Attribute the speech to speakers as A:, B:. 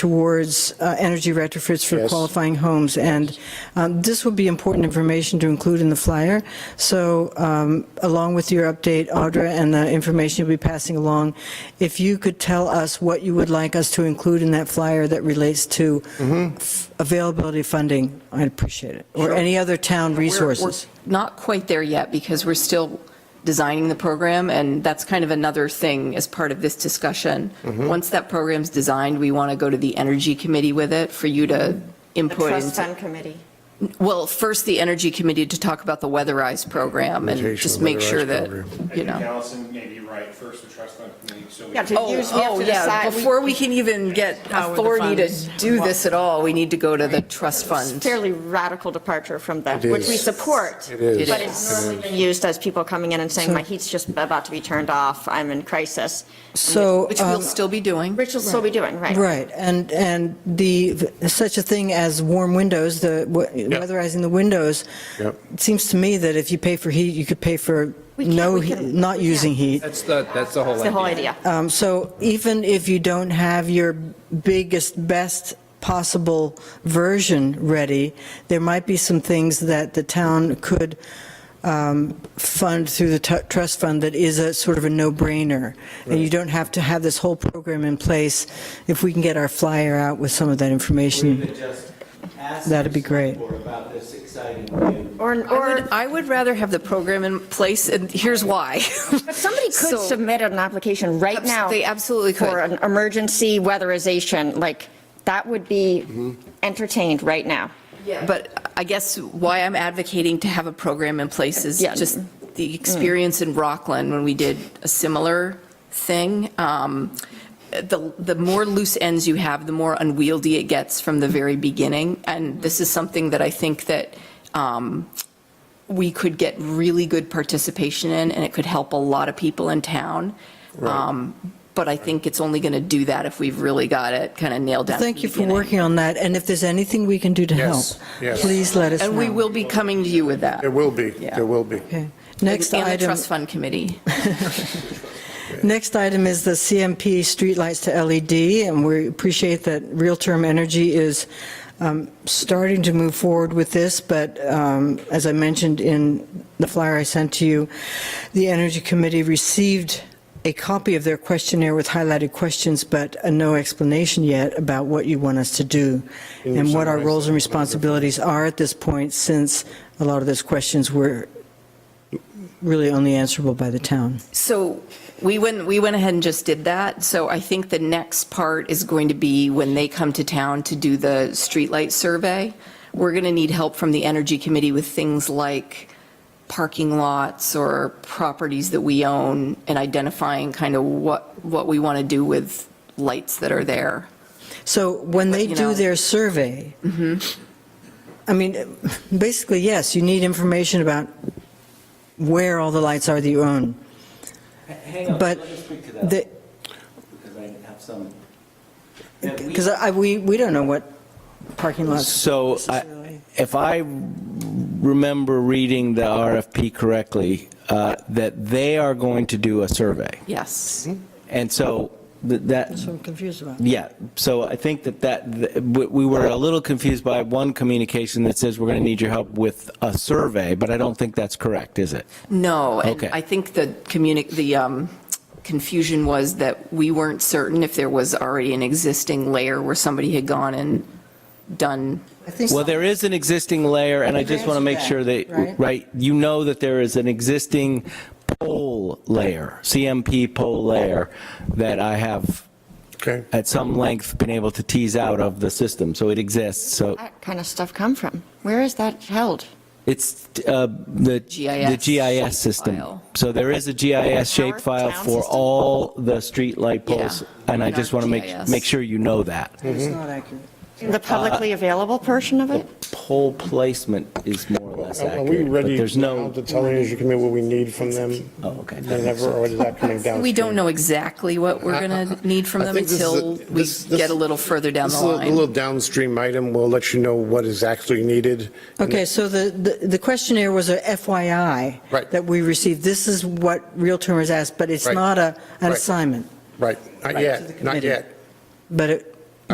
A: towards uh, energy retrofits for
B: Yes.
A: qualifying homes. And um, this would be important information to include in the flyer. So um, along with your update, Audra, and the information you'll be passing along, if you could tell us what you would like us to include in that flyer that relates to f- availability of funding, I'd appreciate it. Or any other town resources.
C: Not quite there yet because we're still designing the program, and that's kind of another thing as part of this discussion.
B: Mm-hmm.
C: Once that program's designed, we want to go to the Energy Committee with it for you to
D: The
C: input.
D: trust
C: into-
D: fund committee.
C: Well, first, the Energy Committee to talk about the weatherized program and
B: Implementation
C: just
B: of
C: make sure
B: weatherized
C: that,
B: program.
C: you
E: I think
C: know.
E: Allison may be right, first the trust fund committee, so we
D: Yeah, to
C: Oh,
D: use, we have
C: oh,
D: to
C: yeah,
D: decide.
C: before we can even get
F: the
C: authority to
F: funds.
C: do this at all, we need to go to the trust
D: It's a
C: fund.
D: Fairly radical departure from that,
B: It
D: which we
B: is.
D: support.
B: It is.
D: But
C: It
D: it's normally been used as people coming in and saying, my heat's just about to be turned off, I'm in crisis.
A: So.
C: Which we'll
A: um,
C: still be doing.
D: Which will still be doing, right?
A: Right, and, and the, such a thing as warm windows, the we- weatherizing the windows,
B: Yep.
A: it seems to me that if you pay for heat, you could pay for
D: We can't-
A: no,
D: we
A: heat-
D: can-
A: not
D: we can't.
A: using heat.
G: That's the, that's the whole
D: It's
G: idea.
D: the whole idea.
A: Um, So even if you don't have your biggest, best possible version ready, there might be some things that the town could um, fund through the tu- trust fund that is a sort of a no-brainer. And you don't have to have this whole program in place. If we can get our flyer out with some of that information. That'd
H: That'd
A: be great.
H: About this exciting new
D: Or,
C: I would-
D: or,
C: I would rather have the program in place, and here's why.
D: but somebody could
C: So-
D: submit an application right
C: Abs-
D: now.
C: they absolutely could.
D: For an emergency weatherization, like, that would be entertained right now.
C: But I guess why I'm advocating to have a program in place is
D: Yeah.
C: just the experience in Rockland when we did a similar thing. Um, The, the more loose ends you have, the more unwieldy it gets from the very beginning. And this is something that I think that um, we could get really good participation in, and it could help a lot of people in town. Um, But I think it's only going to do that if we've really got it kind of nailed down.
A: Thank you for
C: working.
A: working on that, and if there's anything we can do to help,
B: Yes, yes.
A: please let us know.
C: And we will be coming to you with that.
B: There will be,
C: Yeah.
B: there will be.
A: Okay. Next
C: And the
A: item.
C: trust fund committee.
A: Next item is the CMP streetlights to LED, and we appreciate that Real Term Energy is um, starting to move forward with this, but um, as I mentioned in the flyer I sent to you, the Energy Committee received a copy of their questionnaire with highlighted questions, but uh, no explanation yet about what you want us to do and what our roles and responsibilities are at this point, since a lot of those questions were really only answerable by the town.
C: So we went, we went ahead and just did that. So I think the next part is going to be when they come to town to do the streetlight survey. We're going to need help from the energy committee with things like parking lots or properties that we own and identifying kind of what, what we want to do with lights that are there.
A: So when they
C: you
A: do
C: know- Mm-hmm.
A: their survey, I mean, basically, yes, you need information about where all the lights are that you own.
H: Hang on,
A: But
H: let me speak to that,
A: The-
H: because I have some. Yeah, we-
A: Because I, we, we don't know what parking lots,
H: So I- if I remember reading the RFP correctly, uh, that they are going to do a survey.
C: Yes.
H: And so th- that,
A: so I'm confused about.
H: Yeah, so I think that that, th- we we were a little confused by one communication that says we're going to need your help with a survey, but I don't think that's correct, is it?
C: No, and
H: Okay.
C: I think the communi, the um, confusion was that we weren't certain if there was already an existing layer where somebody had gone and done,
A: I think
H: Well, there is an existing layer, and I just want to make sure that,
A: Right.
H: right, you know that there is an existing pole layer, CMP pole layer, that I have
B: Okay.
H: at some length been able to tease out of the system, so it exists, so
D: That kind of stuff come from? Where is that held?
H: it's uh, the.
C: GIS
H: The GIS system.
C: file.
H: So there is a GIS shape file
D: Town
H: for
D: system?
H: all the street light
C: Yeah.
H: poles, and I
C: In
H: just
C: our
H: want to make,
C: GIS.
H: make sure you know that.
A: It's not accurate.
H: Mm-hmm.
D: The publicly available portion of it?
H: Pole placement is more or less
B: Are are we
H: accurate, but
B: ready
H: there's
B: now
H: no,
B: to tell the Energy Committee what we need from them?
H: oh, okay.
B: Then ever, or is that coming down?
C: we don't know exactly what we're going to need from
B: I
C: them
B: think this is a-
C: until we
B: this- this-
C: get a little further down
B: This
C: the
B: is a little
C: line.
B: downstream item, we'll let you know what is actually needed.
A: Okay, so the, the- the questionnaire was a FYI.
B: Right.
A: That we received. This is what Real Term has asked, but it's
B: Right.
A: not a, an
B: Right.
A: assignment,
B: Right, not
A: to the
B: yet, not
A: committee.
B: yet.
A: but it